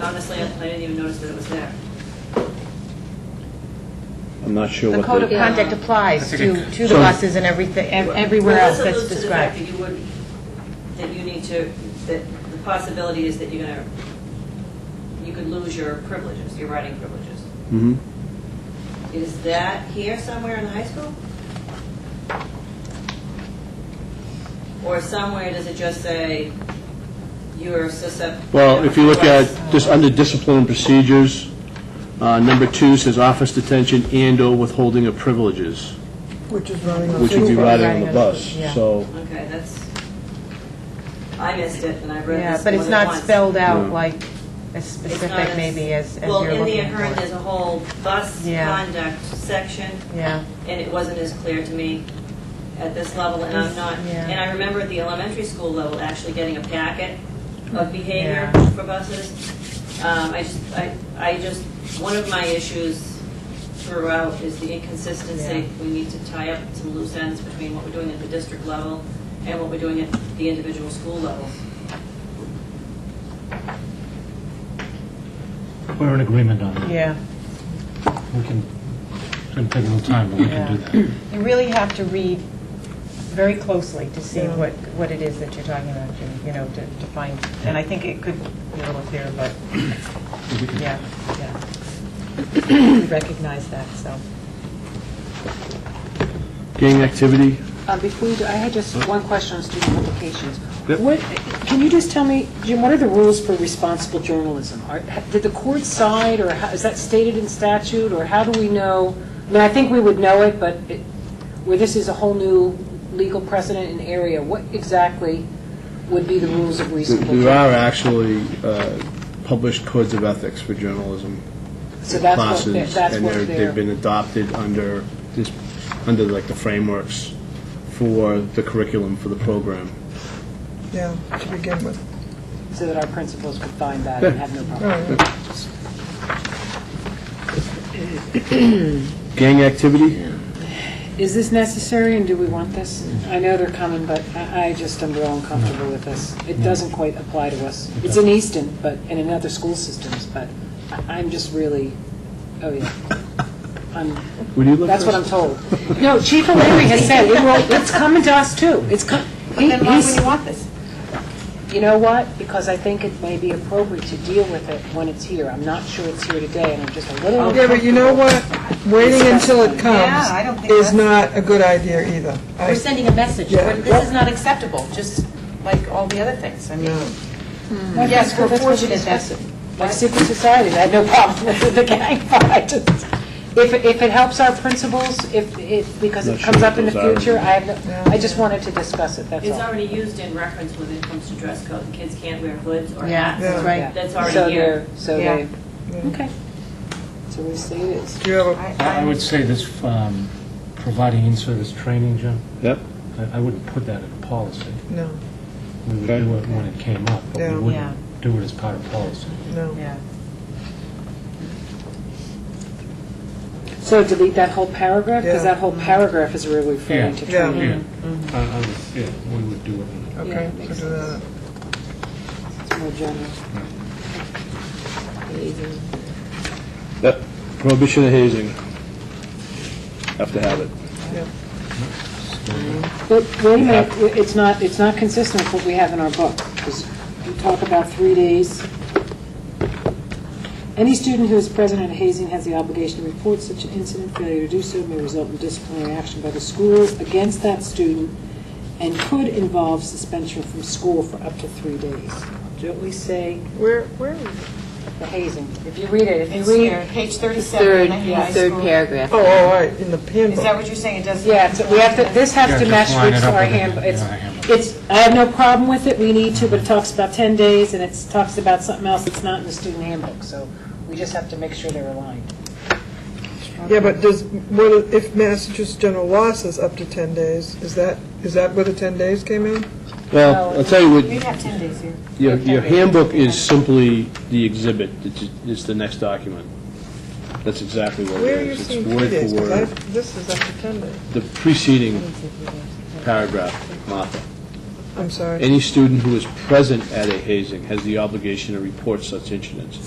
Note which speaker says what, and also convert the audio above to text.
Speaker 1: honestly, I I didn't even notice that it was there.
Speaker 2: I'm not sure
Speaker 3: The
Speaker 2: what
Speaker 3: code of
Speaker 2: the,
Speaker 3: conduct applies to, to the
Speaker 2: So-
Speaker 3: buses and everything, ev- everywhere else
Speaker 1: Well, this
Speaker 3: that's
Speaker 1: alludes to the fact
Speaker 3: described.
Speaker 1: that you would, that you need to, that the possibility is that you're gonna, you could lose your privileges, your writing privileges.
Speaker 2: Mhm. Mm-hmm.
Speaker 1: Is that here somewhere in the high school? Or somewhere does it just say you're susceptible?
Speaker 2: well, if you look at, just under discipline and procedures, uh, number two says office detention and/or withholding of privileges,
Speaker 4: Which is running on
Speaker 2: which would be
Speaker 4: Tuesday.
Speaker 2: riding on the bus,
Speaker 3: Yeah.
Speaker 2: so.
Speaker 1: Okay, that's, I missed it, and I read
Speaker 3: Yeah,
Speaker 1: this
Speaker 3: but it's
Speaker 1: more than
Speaker 3: not
Speaker 1: once.
Speaker 3: spelled out
Speaker 2: No.
Speaker 3: like as
Speaker 1: It's not
Speaker 3: specific maybe as, as
Speaker 1: Well,
Speaker 3: you're
Speaker 1: in the
Speaker 3: looking
Speaker 1: Ahern, there's
Speaker 3: for.
Speaker 1: a whole bus
Speaker 3: Yeah.
Speaker 1: conduct section,
Speaker 3: Yeah,
Speaker 1: and it wasn't as clear to me at this level, and I'm not,
Speaker 3: Yeah.
Speaker 1: and I remember at the elementary school level, actually getting a packet of behavior
Speaker 3: Yeah.
Speaker 1: for buses. Um, I just, I, I just, one of my issues throughout is the inconsistency. We need to tie up some loose ends between what we're doing at the district level and what we're doing at the individual school level.
Speaker 5: We're in agreement on that.
Speaker 3: yeah.
Speaker 5: We can, it's going to take a little time, but we can do that.
Speaker 3: You really have to read very closely to see what, what it is that you're talking about, Jim, you know, to, to find. And I think it could be a little clearer, but, yeah, yeah. We recognize that, so.
Speaker 2: Gang activity,
Speaker 6: Uh, Before you do, I had just one question on student publications.
Speaker 2: Yep.
Speaker 6: What, can you just tell me, Jim, what are the rules for responsible journalism? Are- ha- Did the court side, or how- is that stated in statute, or how do we know? I mean, I think we would know it, but it- where this is a whole new legal precedent and area, what exactly would be the rules of
Speaker 2: There-
Speaker 6: reasonable?
Speaker 2: there are
Speaker 6: journalism?
Speaker 2: actually uh, published codes of ethics for journalism
Speaker 6: So that's what
Speaker 2: classes,
Speaker 6: they're- that's
Speaker 2: and
Speaker 6: what
Speaker 2: they're-
Speaker 6: they're-
Speaker 2: they've been adopted under this, under like the frameworks for the curriculum for the program.
Speaker 4: Yeah, to begin with.
Speaker 6: So that our principals could find that and have no problem?
Speaker 4: All right.
Speaker 2: Gang activity?
Speaker 6: Is this necessary, and do we want this? I know they're coming, but I I just am real uncomfortable with this. It doesn't quite apply to us. It's in Easton, but, and in other school systems, but I- I'm just really, oh yeah. I'm-
Speaker 2: Would you look
Speaker 6: That's what I'm
Speaker 2: first?
Speaker 6: told. No, Chief O'Leary has said, it will, it's coming to us too. It's co- he-
Speaker 7: Then why
Speaker 6: he's-
Speaker 7: would you want this?
Speaker 6: you know what? Because I think it may be appropriate to deal with it when it's here. I'm not sure it's here today, and I'm just a little
Speaker 4: Yeah, but you know what? Waiting until it
Speaker 7: Yeah, I don't
Speaker 4: comes
Speaker 7: think
Speaker 4: is
Speaker 7: that's-
Speaker 4: not a good idea either. I-
Speaker 7: We're sending a message,
Speaker 4: Yeah.
Speaker 7: We're- this is not acceptable, just like all the other things. I mean,
Speaker 4: No.
Speaker 7: yes, we're fortunate that
Speaker 6: Like secret societies, I had no problem with the gang fight. If, if it helps our principals, if, if, because
Speaker 2: Not
Speaker 6: it
Speaker 2: sure
Speaker 6: comes up in the
Speaker 2: what those are.
Speaker 6: future, I have, no- I just wanted to discuss it, that's
Speaker 1: It's
Speaker 6: all.
Speaker 1: already used in reference when it comes to dress code, and kids can't wear hoods or
Speaker 3: Yeah,
Speaker 1: hats.
Speaker 3: that's right.
Speaker 1: That's already
Speaker 6: So
Speaker 1: here.
Speaker 6: they're- So
Speaker 7: Yeah.
Speaker 6: they, okay. So we say it is.
Speaker 4: Do you have a
Speaker 5: I would say this, um, providing in-service training, Jim,
Speaker 2: Yep.
Speaker 5: I- I wouldn't put that in policy.
Speaker 4: No,
Speaker 5: We would
Speaker 2: Okay.
Speaker 5: do it when it came up, but
Speaker 4: Yeah.
Speaker 5: we
Speaker 3: Yeah.
Speaker 5: wouldn't do it as part of policy.
Speaker 4: no.
Speaker 3: Yeah.
Speaker 6: So delete that whole paragraph, because
Speaker 4: Yeah.
Speaker 6: that whole paragraph is really referring to
Speaker 4: Yeah.
Speaker 6: training.
Speaker 5: Yeah, I- I would- yeah, we would do it. in-
Speaker 4: Okay,
Speaker 6: Yeah,
Speaker 4: so do that.
Speaker 6: It's more general.
Speaker 2: Yep. Prohibition of hazing. Have to have it.
Speaker 6: But wait a minute, w- it's not, it's not consistent with what we have in our book, because we talk about three days. Any student who is present at a hazing has the obligation to report such an incident. Failure to do so may result in disciplinary action by the schools against that student and could involve suspension from school for up to three days. Don't we say
Speaker 4: Where, where?
Speaker 6: the hazing? If you read it, if
Speaker 7: It's
Speaker 6: you
Speaker 7: here,
Speaker 6: read.
Speaker 7: page
Speaker 8: Third,
Speaker 7: 37 in the high
Speaker 8: third
Speaker 7: school.
Speaker 8: paragraph.
Speaker 4: Oh, all right, in the
Speaker 7: Is that
Speaker 4: handbook.
Speaker 7: what you're saying, it doesn't?
Speaker 6: Yeah, so we have to, this has
Speaker 5: Yeah,
Speaker 6: to
Speaker 5: just
Speaker 6: match
Speaker 5: line it
Speaker 6: with
Speaker 5: up
Speaker 6: our
Speaker 5: with the-
Speaker 6: handbook. It's,
Speaker 5: yeah, handbook.
Speaker 6: it's, I have no problem with it, we need to, but it talks about 10 days, and it talks about something else that's not in the student handbook, so we just have to make sure they're aligned.
Speaker 4: Yeah, but does, what, if- if Massachusetts general law says up to 10 days, is that, is that where the 10 days came in?
Speaker 2: Well, I'll tell you
Speaker 7: You'd
Speaker 2: what,
Speaker 7: have 10 days here.
Speaker 2: your your handbook is simply the exhibit, it's it's the next document. That's exactly what
Speaker 4: Where are
Speaker 2: it
Speaker 4: you
Speaker 2: is.
Speaker 4: seeing
Speaker 2: It's
Speaker 4: three
Speaker 2: word
Speaker 4: days?
Speaker 2: for
Speaker 4: 'Cause
Speaker 2: word.
Speaker 4: I- This is up to 10 days.
Speaker 2: The preceding paragraph, Martha.
Speaker 4: I'm sorry.
Speaker 2: Any student who is present at a hazing has the obligation to report such incidents.